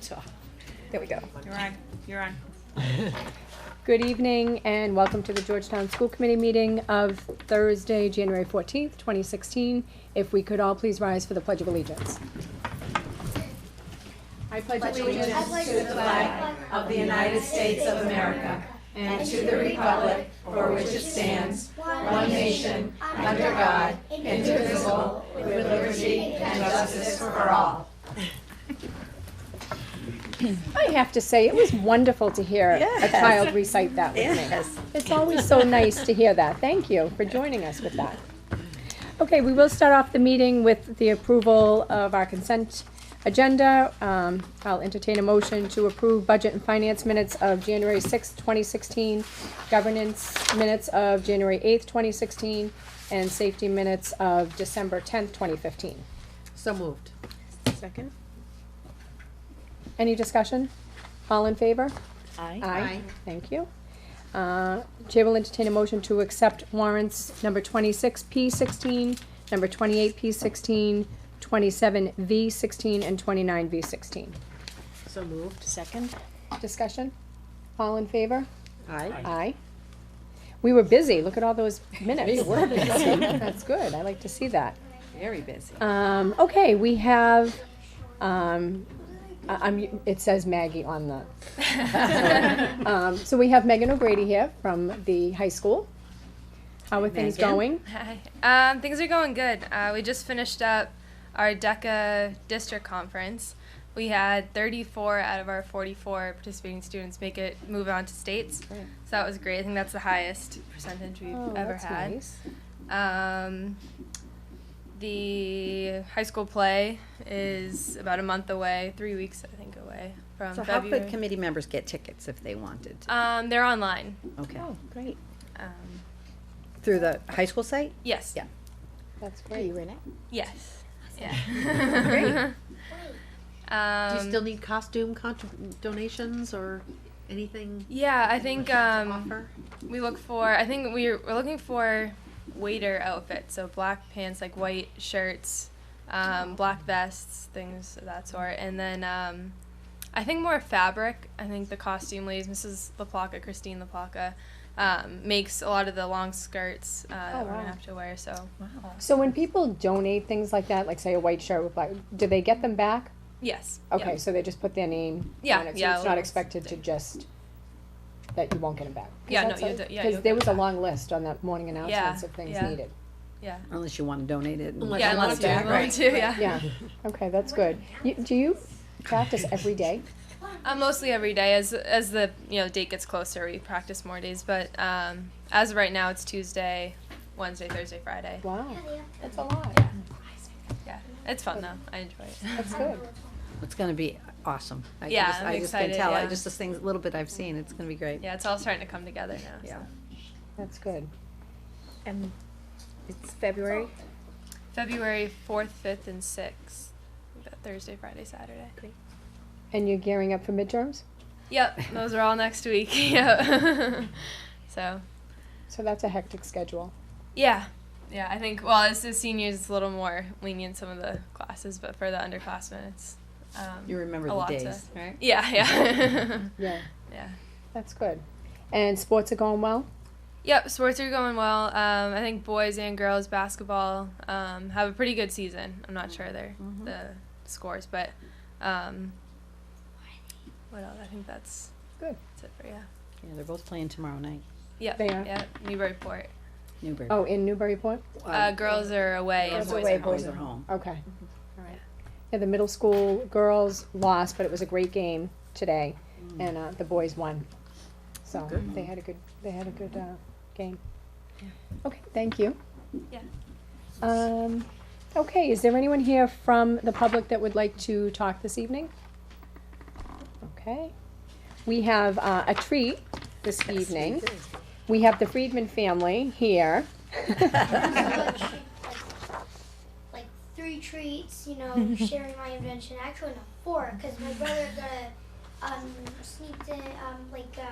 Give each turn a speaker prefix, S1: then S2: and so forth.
S1: So, there we go.
S2: You're on, you're on.
S1: Good evening and welcome to the Georgetown School Committee meeting of Thursday, January 14th, 2016. If we could all please rise for the Pledge of Allegiance. I pledge
S3: allegiance to the flag of the United States of America and to the republic for which it stands, one nation, under God, indivisible, with liberty and justice for all.
S1: I have to say, it was wonderful to hear a
S2: Yes.
S1: child recite that with me. It's always so nice to hear that. Thank you for joining us with that. Okay, we will start off the meeting with the approval of our consent agenda. Um, I'll entertain a motion to approve budget and finance minutes of January sixth, twenty sixteen, governance minutes of January eighth, twenty sixteen, and safety minutes of December tenth, twenty fifteen.
S4: So moved.
S2: Second?
S1: Any discussion? All in favor?
S2: Aye.
S1: Aye.
S4: Aye.
S1: Thank you. Uh, Chair will entertain a motion to accept warrants number twenty-six P sixteen, number twenty-eight P sixteen, twenty-seven V sixteen, and twenty-nine V sixteen.
S4: So moved.
S2: Second?
S1: Discussion? All in favor?
S4: Aye.
S1: Aye. We were busy. Look at all those minutes. We were busy. That's good. I like to see that.
S2: Very busy.
S1: Um, okay, we have, um, I, am it says Maggie on the. Um, so we have Megan O'Grady here from the high school. How are things
S2: Megan.
S1: going?
S5: Hi. Um, things are going good. Uh, we just finished up our DECA district conference. We had 34 out of our 44 participating students make it move on to states.
S2: Great.
S5: So that was great. I think that's the highest percentage we've
S1: Oh,
S5: ever
S1: that's
S5: had.
S1: nice.
S5: Um, the high school play is about a month away, three weeks I think away from
S2: So how
S5: February.
S2: could committee members get tickets if they wanted?
S5: um, they're online.
S2: Okay.
S1: Oh, great.
S5: Um,
S2: Through the high school site?
S5: yes.
S2: Yeah.
S1: That's great.
S5: Yes. Yeah. um,
S4: Do you still need costume contr- donations or anything
S5: Yeah, I think
S4: to
S5: um,
S4: offer?
S5: we look for. I think we're, we're looking for waiter outfits, so black pants, like white shirts, um, black vests, things of that sort, and then um, I think more fabric. I think the costume ladies, Mrs. LaPlaca, Christine LaPlaca, um, makes a lot of the long skirts uh,
S4: Oh,
S5: that we're
S1: wow.
S5: gonna have to wear. So
S1: So when people donate things like that, like say a white shirt with black, do they get them back?
S5: yes. yeah.
S1: Okay, so they just put their name
S5: Yeah,
S1: on it, so
S5: yeah,
S1: it's not
S5: little
S1: expected to
S5: stick.
S1: just, that you won't get them back. 'Cause
S5: Yeah, no,
S1: that's
S5: you'll
S1: a-
S5: do- yeah,
S1: Cause
S5: you'll
S1: there
S5: get
S1: was a
S5: back.
S1: long list on that morning announcements of things
S5: yeah.
S1: needed.
S5: Yeah.
S2: Unless you want to donate it.
S4: Unless
S5: yeah,
S4: you
S5: unless
S4: want
S5: you
S4: it back,
S5: want
S4: right,
S5: to, yeah.
S1: Yeah, okay, that's good. You, do you practice every day?
S5: Uh, mostly every day. As as the you know date gets closer, we practice more days. But um, as of right now, it's Tuesday, Wednesday, Thursday, Friday.
S1: Wow, that's a lot.
S5: Yeah. Yeah, it's fun though. I enjoy it.
S1: That's good.
S2: It's gonna be awesome. I
S5: Yeah,
S2: just-
S5: I'm
S2: I just can
S5: excited,
S2: tell. I
S5: yeah.
S2: just, the things, little bit I've seen, it's gonna be great.
S5: yeah, it's all starting to come together now.
S2: Yeah.
S5: so.
S1: That's good.
S6: And it's February.
S5: February fourth, fifth, and sixth. Th- Thursday, Friday, Saturday.
S1: And you're gearing up for midterms?
S5: Yep, those are all next week. Yep. so
S1: So that's a hectic schedule.
S5: yeah, yeah. I think well, as the seniors, it's a little more lenient some of the classes, but for the underclassmen, it's um,
S2: You remember
S5: a
S2: the
S5: lot to-
S2: days, right?
S5: yeah, yeah,
S1: Yeah,
S5: yeah.
S1: that's good. And sports are going well?
S5: Yep, sports are going well. Um, I think boys and girls basketball um, have a pretty good season. I'm not sure their the scores, but um, what else? I think that's
S1: Good.
S5: That's it for yeah.
S2: Yeah, they're both playing tomorrow night,
S5: Yep.
S1: They are.
S5: Yep. Newburyport.
S2: Newbury.
S1: Oh, in Newburyport?
S5: Uh, girls are away and
S1: Girls
S5: boys
S1: away,
S5: are home.
S2: Boys are home.
S1: Okay. Mm-hmm. Yeah, the middle school girls lost, but it was a great game today, and uh, the boys won. So they had a good, they had a good uh, game. Okay, thank you.
S5: Yeah.
S1: Um, okay, is there anyone here from the public that would like to talk this evening? Okay, we have uh, a treat this evening. We have the Friedman family here.
S3: Like three treats, you know, sharing my invention. Actually, no, four, because my brother got a um, sneaked in, um, like, uh,